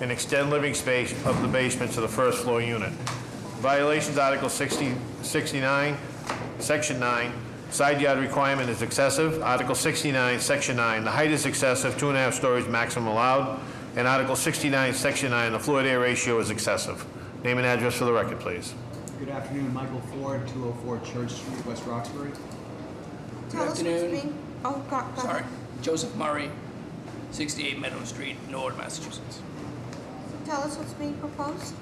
and extend living space of the basement to the first floor unit. Violations Article 60 69, Section 9, side yard requirement is excessive. Article 69, Section 9, the height is excessive, two and a half stories maximum allowed. And Article 69, Section 9, the floor to air ratio is excessive. Name and address for the record, please. Good afternoon, Michael Ford, 204 Church Street, West Roxbury. Tell us what's afternoon. being, oh, God, go Sorry, ahead. Joseph Murray, 68 Meadow Street, Norwood, Massachusetts. Tell us what's being proposed.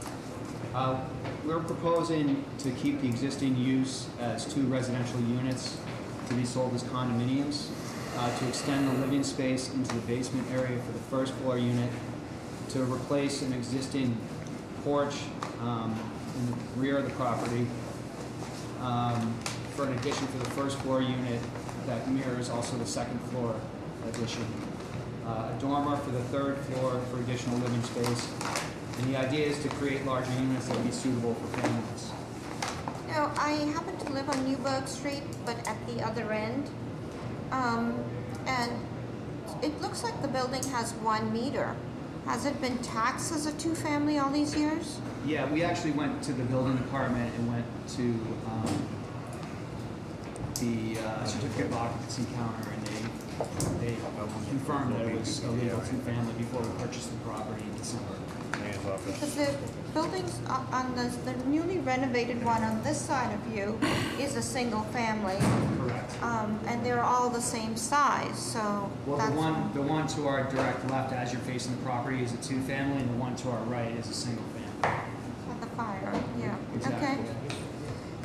Uh, We're proposing to keep the existing use as two residential units to be sold as condominiums, uh, to extend the living space into the basement area for the first floor unit, to replace an existing porch um, in the rear of the property um, for an addition for the first floor unit that mirrors also the second floor addition. Uh, A dormer for the third floor for additional living space. And the idea is to create larger units that would be suitable for families. Now, I happen to live on Newburgh Street, but at the other end. Um, and it looks like the building has one meter. Has it been taxed as a two-family all these years? Yeah, we actually went to the building department and went to um, the uh, certificate of occupancy counter and they, they confirmed that it was a legal two-family before we purchased the property in December. Mayor's office. Because the buildings o- on the, the newly renovated one on this side of you is a single family. Correct. Um, and they're all the same size, so Well, that's. the one, the one to our direct left as you're facing the property is a two-family, and the one to our right is a single family. At the fire, yeah, okay. Exactly.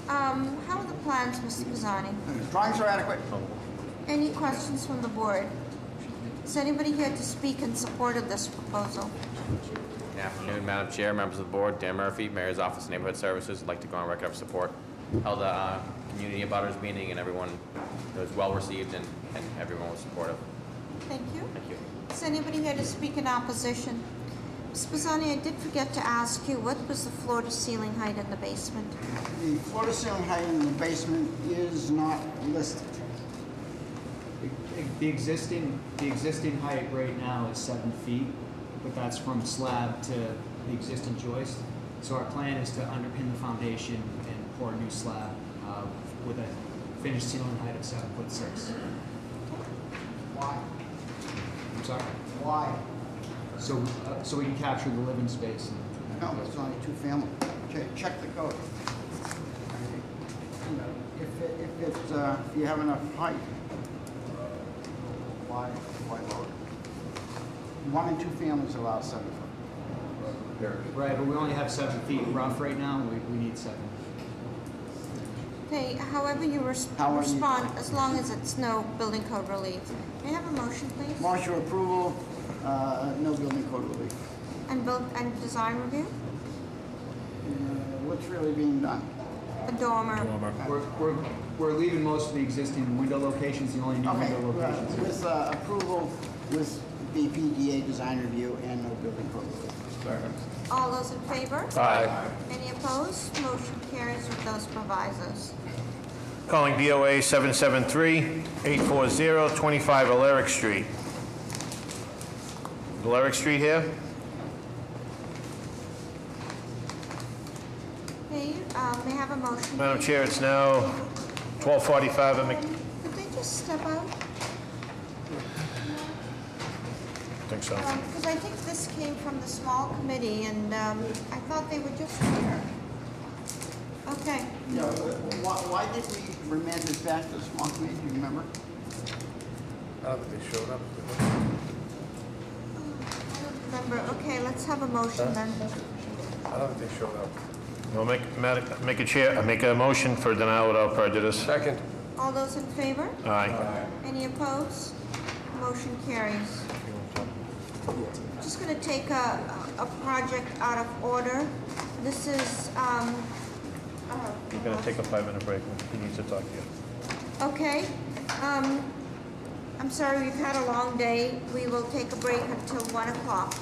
Um, how are the plans, Mr. Pizzani? Drawings are adequate. Any questions from the board? Is anybody here to speak in support of this proposal? Good afternoon, Madam Chair, members of the board, Dan Murphy, Mayor's Office of Neighborhood Services. I'd like to go on record of support. Held a uh, community abutters meeting, and everyone, it was well-received, and and everyone was supportive. Thank you. Thank you. Is anybody here to speak in opposition? Ms. Pizzani, I did forget to ask you, what was the floor to ceiling height in the basement? The floor to ceiling height in the basement is not listed. The existing, the existing height right now is seven feet, but that's from slab to the existing joist. So our plan is to underpin the foundation and pour a new slab uh, with a finished ceiling height of seven foot six. Why? I'm sorry. Why? So, uh, so we can capture the living space. No, it's only two-family. Check, check the code. You know, If, it- if it's, uh, if you have enough height, why, why lower? it? One and two families allow seven foot. Right, but we only have seven feet rough right now, we, we need seven. Okay, however you res- How are you- respond, as long as it's no building code relief. May I have a motion, please? Marshal approval, uh, no building code relief. And build, and design review? Uh, What's really being done? A dormer? We're, we're, we're leaving most of the existing window locations, the only new Okay, window uh, locations. with uh, approval, with the PDA design review and no building code relief. All those in favor? Aye. Any opposed? Motion carries with those provisos. Calling DOA 773-840-25 Alaric Street. Alaric Street here? Okay, um, may I have a motion? Madam please? Chair, it's now 12:45 and Mc... Um, Could they just step out? I think so. Because Um, I think this came from the small committee, and um, I thought they were just here. Okay, Yeah, why, why did we remand this back to the small committee, do you remember? I don't remember, okay, let's have a motion then. I'll make, mad- make a chair, make a motion for denial without prejudice. Second. All those in favor? Aye. Any opposed? Motion carries. Just going to take a, a project out of order. This is, um, uh, He's going to take a five-minute break. He needs to talk to you. okay. Um, I'm sorry, we've had a long day. We will take a break until 1 o'clock.